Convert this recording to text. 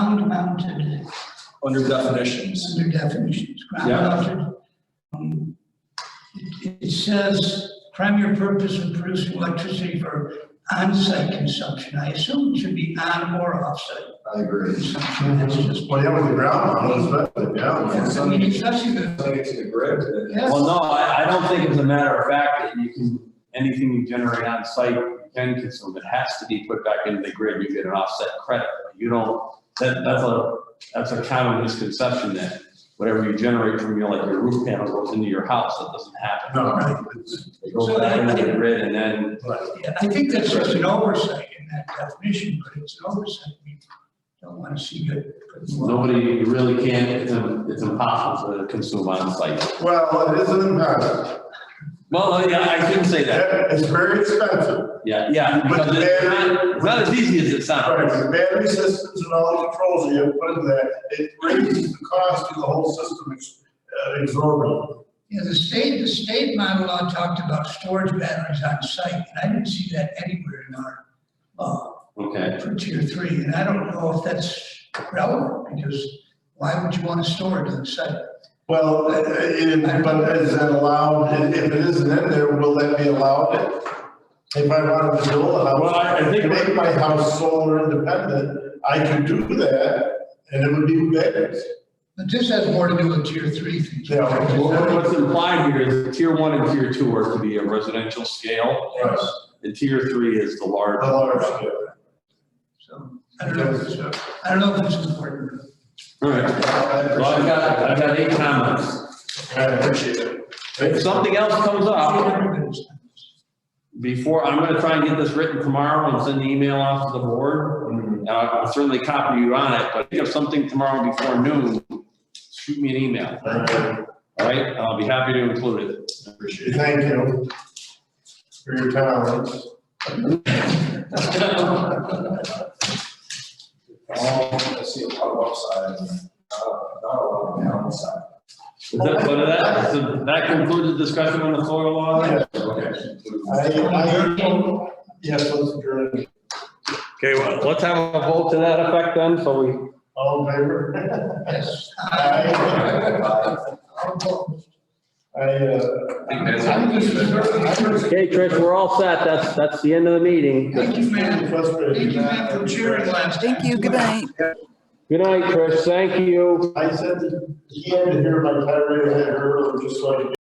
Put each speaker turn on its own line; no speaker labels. under definitions.
under definitions. Ground
Yeah.
alters, um, It it says primary purpose of producing electricity for on-site consumption. I assume it should be on or off-site
I agree.
consumption. That's just.
Well, yeah, with the ground model, especially, yeah.
I mean, it's not even-
Something it's in the grid.
yes.
Well, no, I, I don't think it's a matter of fact that you can, anything you generate on site, you can consume. It has to be put back into the grid. You get an offset credit. You don't, that, that's a, that's a common misconception that whatever you generate from your, like your roof panel goes into your house. That doesn't happen.
No, right, it's-
It goes back into the grid and then,
but
Yeah, I think that's just an oversight in that definition, but it's an oversight. We don't want to see that.
nobody really can, it's, im- it's impossible to consume on site.
Well, it is an impact.
Well, yeah, I shouldn't say that.
It's very expensive.
Yeah, yeah,
But
because it's not, it's not as easy as it
Right,
sounds.
the battery systems and all the controls you put in that, it raises the cost of the whole system ex- uh, exorbitant.
Yeah, the state, the state model law talked about storage batteries on site, and I didn't see that anywhere in our law.
Okay.
for tier three, and I don't know if that's relevant, because why would you want to store it on site?
Well, uh, uh, but is that allowed, if if it isn't in there, will that be allowed? If I wanted to build a
Well, I- I
house,
think-
make my house solar independent, I could do that, and it would be batteries.
But this has more to do with tier three things.
Yeah, well,
What- What's implied here is tier one and tier two are to be a residential scale.
Right.
And tier three is the large.
A large scale.
So, I don't know, if it's- I don't know if it's important.
All right, well, I've got, I've got eight comments.
I appreciate it.
If something else comes up
Everybody's-
before, I'm gonna try and get this written tomorrow and send the email off to the board. And I'll I'll certainly copy you on it, but if something tomorrow before noon, shoot me an email,
Uh,
all right? I'll be happy to include it.
Appreciate it. Thank you for your comments.
Um, I see a lot of upside and not, not a lot of downside.
Is that, but that, so that concludes the discussion on the solar law?
Yeah. I,
Okay.
I, don't- yes, let's adjourn.
Okay, well, let's have a vote to that effect then, so we
All in favor?
Yes.
Aye. I, uh,
think that's-
I'm just, I'm just.
Okay, Trish, we're all set. That's, that's the end of the meeting.
Thank you, man.
Frustrated.
Thank you, man, for cheering last time.
Thank you, good night.
Good night, Trish. Thank you.
I said that he had to hear my tirade, I heard him just so I could